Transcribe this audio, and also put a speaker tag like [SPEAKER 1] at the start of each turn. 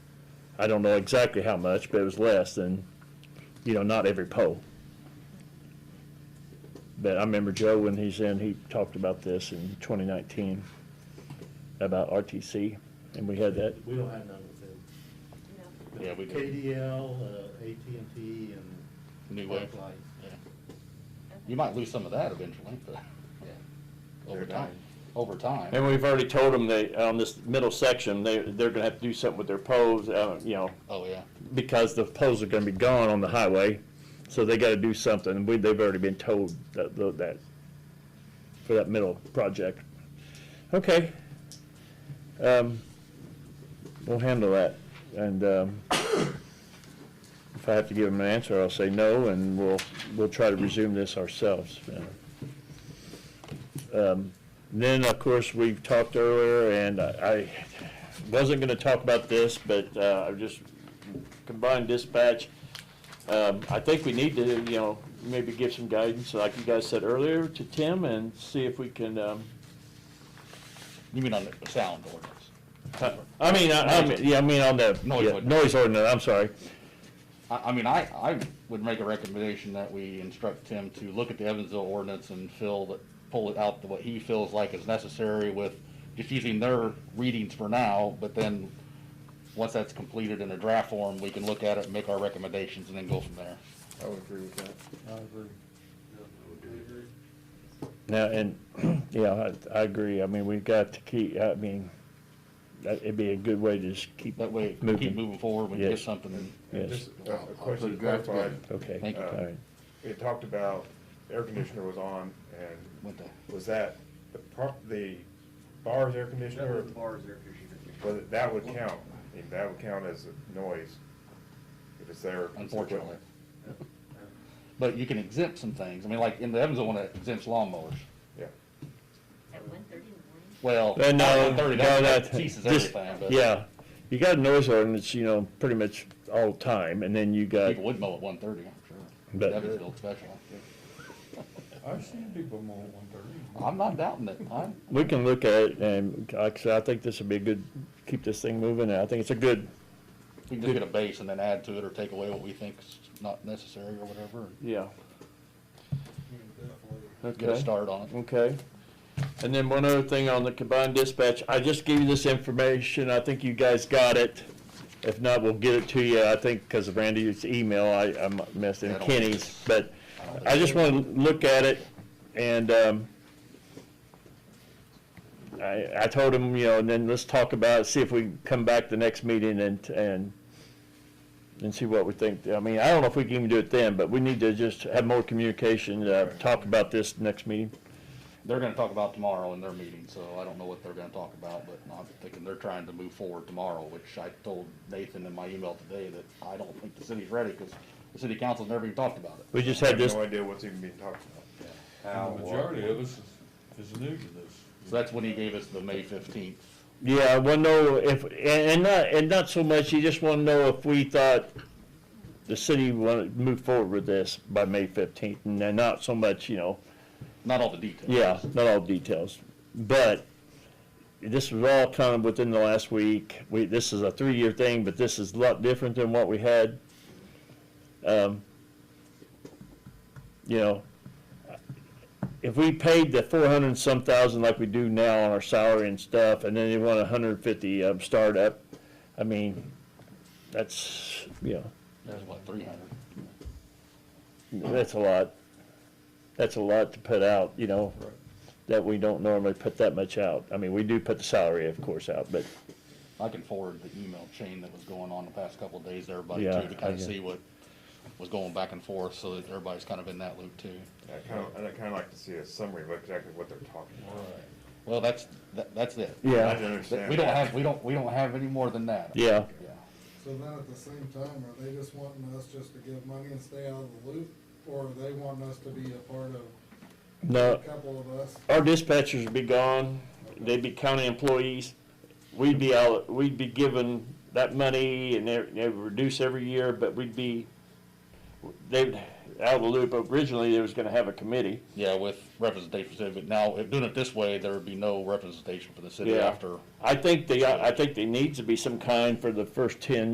[SPEAKER 1] I don't know exactly how much, but it was less than, you know, not every pole. But I remember Joe when he's in, he talked about this in 2019 about RTC, and we had that.
[SPEAKER 2] We don't have none with them.
[SPEAKER 3] Yeah, we do.
[SPEAKER 2] KDL, uh, AT&T, and.
[SPEAKER 3] New Wave.
[SPEAKER 2] Parklight.
[SPEAKER 3] Yeah. You might lose some of that eventually, but, yeah, over
[SPEAKER 2] They're
[SPEAKER 3] time,
[SPEAKER 2] dying.
[SPEAKER 3] over time.
[SPEAKER 1] And we've already told them they on this middle section they they're going to have to do something with their poles, uh, you know,
[SPEAKER 3] Oh, yeah.
[SPEAKER 1] because the poles are going to be gone on the highway, so they got to do something. And we, they've already been told that, that, for that middle project. Okay. Um, we'll handle that. And, um, if I have to give them an answer, I'll say no, and we'll, we'll try to resume this ourselves. Um, Then, of course, we've talked earlier, and I I wasn't going to talk about this, but, uh, I just combined dispatch. Um, I think we need to, you know, maybe give some guidance, like you guys said earlier, to Tim and see if we can, um,
[SPEAKER 3] You mean on the sound ordinance?
[SPEAKER 1] I I mean, I, I mean, yeah, I mean on the,
[SPEAKER 3] Noise
[SPEAKER 1] yeah,
[SPEAKER 3] ordinance.
[SPEAKER 1] noise ordinance, I'm sorry.
[SPEAKER 3] I, I mean, I, I would make a recommendation that we instruct Tim to look at the Evansville ordinance and fill that, pull it out to what he feels like is necessary with just using their readings for now, but then, once that's completed in a draft form, we can look at it and make our recommendations and then go from there.
[SPEAKER 4] I would agree with that.
[SPEAKER 2] I agree.
[SPEAKER 1] Now, and, yeah, I, I agree, I mean, we've got to keep, I mean, that, it'd be a good way to just keep,
[SPEAKER 3] That way,
[SPEAKER 1] Moving.
[SPEAKER 3] keep moving forward, we can get
[SPEAKER 1] Yes.
[SPEAKER 3] something.
[SPEAKER 4] And
[SPEAKER 1] Yes.
[SPEAKER 4] just a- a
[SPEAKER 2] put
[SPEAKER 4] question
[SPEAKER 2] it
[SPEAKER 4] to
[SPEAKER 2] back
[SPEAKER 4] clarify.
[SPEAKER 2] together.
[SPEAKER 1] okay,
[SPEAKER 3] Thank you.
[SPEAKER 1] all right.
[SPEAKER 4] It talked about air conditioner was on and
[SPEAKER 3] What the-
[SPEAKER 4] was that the pro, the bar's air conditioner? or- Well, that would count. I mean, that would count as a noise if it's there. it's
[SPEAKER 3] unfortunately.
[SPEAKER 4] equipment.
[SPEAKER 3] But you can exempt some things. I mean, like in the Evansville one, it exempts lawnmowers.
[SPEAKER 4] Yeah.
[SPEAKER 5] At one thirty in the morning?
[SPEAKER 3] Well,
[SPEAKER 1] Uh, no,
[SPEAKER 3] not 130,
[SPEAKER 1] no,
[SPEAKER 3] that
[SPEAKER 1] that-
[SPEAKER 3] ceases
[SPEAKER 1] just-
[SPEAKER 3] everything, but
[SPEAKER 1] Yeah, you got a noise ordinance, you know, pretty much all the time, and then you got,
[SPEAKER 3] people would mow at one thirty, I'm sure.
[SPEAKER 1] But-
[SPEAKER 3] Evansville special.
[SPEAKER 6] I've seen people mow one thirty.
[SPEAKER 3] I'm not doubting it. I'm,
[SPEAKER 1] we can look at it, and like I said, I think this would be a good, keep this thing moving, and I think it's a good,
[SPEAKER 3] we can just get a base and then add to it or take away what we think's not necessary or whatever. and
[SPEAKER 1] yeah.
[SPEAKER 3] Get a
[SPEAKER 1] Okay.
[SPEAKER 3] start on it.
[SPEAKER 1] Okay. And then one other thing on the combined dispatch, I just gave you this information, I think you guys got it. If not, we'll get it to you, I think, because of Randy's email, I, I messed
[SPEAKER 3] I
[SPEAKER 1] in
[SPEAKER 3] don't think
[SPEAKER 1] Kenny's,
[SPEAKER 3] it's-
[SPEAKER 1] but
[SPEAKER 3] I don't think
[SPEAKER 1] I just want to look at it, and, um, I, I told him, you know, and then let's talk about, it, see if we can come back the next meeting and, and, and see what we think. I mean, I don't know if we can even do it then, but we need to just have more communication, uh, talk about this next meeting.
[SPEAKER 3] They're gonna talk about tomorrow in their meeting, so I don't know what they're gonna talk about, but I'm thinking they're trying to move forward tomorrow, which I told Nathan in my email today that I don't think the city's ready, cause the city council's never even talked about it.
[SPEAKER 1] We just
[SPEAKER 4] I
[SPEAKER 1] had
[SPEAKER 4] have
[SPEAKER 1] this,
[SPEAKER 4] no idea what's even being talked about.
[SPEAKER 6] The majority of us is, is new to this.
[SPEAKER 3] So that's when he gave us the May fifteenth.
[SPEAKER 1] yeah, I want to know if, and, and not, and not so much, you just want to know if we thought the city wanted to move forward with this by May fifteenth, and then not so much, you know,
[SPEAKER 3] Not all the details.
[SPEAKER 1] yeah, not all details. But this was all kind of within the last week. We, this is a three-year thing, but this is a lot different than what we had. Um, You know, if we paid the four hundred and some thousand like we do now on our salary and stuff, and then they want a hundred and fifty, um, startup, I mean, that's, you know,
[SPEAKER 3] There's what, three hundred?
[SPEAKER 1] that's a lot. That's a lot to put out, you know, that we don't normally put that much out. I mean, we do put the salary, of course, out, but,
[SPEAKER 3] I can forward the email chain that was going on the past couple of days to everybody
[SPEAKER 1] Yeah,
[SPEAKER 3] too, to
[SPEAKER 1] I
[SPEAKER 3] kind of
[SPEAKER 1] get-
[SPEAKER 3] see what was going back and forth, so that everybody's kind of in that loop too.
[SPEAKER 4] I kind of, I'd kind of like to see a summary of exactly what they're talking about.
[SPEAKER 3] Well, that's, that, that's it.
[SPEAKER 4] I
[SPEAKER 1] yeah,
[SPEAKER 4] didn't understand.
[SPEAKER 3] We don't
[SPEAKER 4] that.
[SPEAKER 3] have, we don't, we don't have any more than that.
[SPEAKER 1] yeah.
[SPEAKER 3] Yeah.
[SPEAKER 7] So then at the same time, are they just wanting us just to give money and stay out of the loop? Or are they wanting us to be a part of, a
[SPEAKER 1] No,
[SPEAKER 7] couple of us?
[SPEAKER 1] our dispatchers would be gone, they'd be county employees. We'd be out, we'd be given that money and they, they would reduce every year, but we'd be, they'd, out of the loop. Originally, they was gonna have a committee.
[SPEAKER 3] Yeah, with representation, but now, if doing it this way, there would be no representation for the city
[SPEAKER 1] Yeah.
[SPEAKER 3] after
[SPEAKER 1] I think they, I think there needs to be some kind for the first ten